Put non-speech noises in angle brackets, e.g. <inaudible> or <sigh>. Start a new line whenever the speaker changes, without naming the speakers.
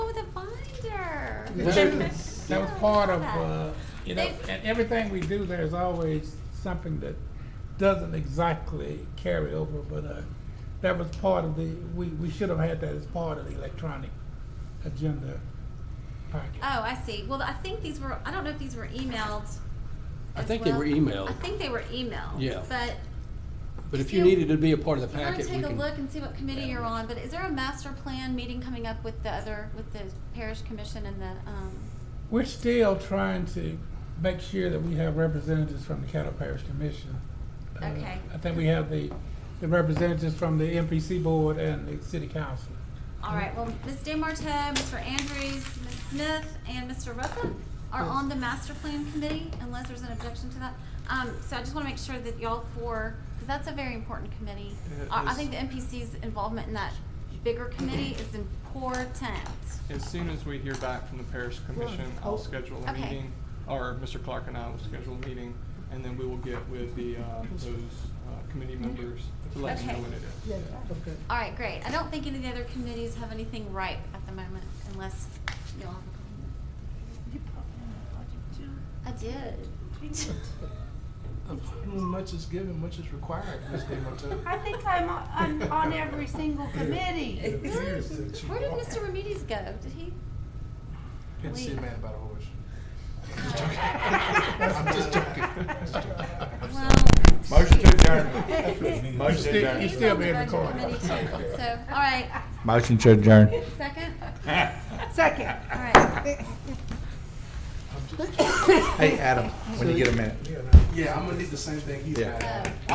That was- that was part of, uh, you know,
They-
and everything we do, there's always something that doesn't exactly carry over, but, uh, that was part of the, we, we should have had that as part of the electronic agenda
Oh,
packet.
I see. Well, I think these were, I don't know if these were emailed.
I
as
think they
well.
were emailed.
I think they were emailed.
Yeah.
But
But if you needed to be a part of the
I'm gonna
packet, we
take a look
can.
and see what committee you're on, but is there a master plan meeting coming up with the other, with the parish commission and the, um,
We're still trying to make sure that we have representatives from the Cattle Parish Commission. Uh,
Okay.
I think we have the, the representatives from the MPC board and the city council.
all right, well, Ms. DeMarteau, Mr. Andrews, Ms. Smith, and Mr. Ruffin are on the master plan committee, unless there's an objection to that. Um, so I just wanna make sure that y'all four, cause that's a very important committee.
Yeah, it
I, I
is.
think the NPC's involvement in that bigger committee is important.
As soon as we hear back from the parish commission, I'll schedule a
oh, Okay.
meeting, or Mr. Clark and I will schedule a meeting, and then we will get with the, uh, those uh, committee members to let them know
Mm-hmm. Okay.
what it is.
All right, great. I don't think any of the other committees have anything ripe at the moment unless y'all have a comment. I did.
Much is given, much is required, Ms.
I
DeMartini.
think I'm, on- I'm on every single committee.
It appears that you
Where did
are.
Mr. Remedies go? Did he?
Didn't see a
leave?
man about a horse. I'm just joking. I'm just joking.
Well, <laughs>
Motion to
Motion
<laughs>
adjourn. Motion to
Still-
adjourn.
He's
he's
still
on the
being
budget
recorded.
committee too. So, all right,
Motion to adjourn.
second?
Second.
All right.
<laughs>
<laughs>
Hey, Adam, when you get a minute.
Yeah, I'm gonna need the same thing he's
Yeah.
got.
So-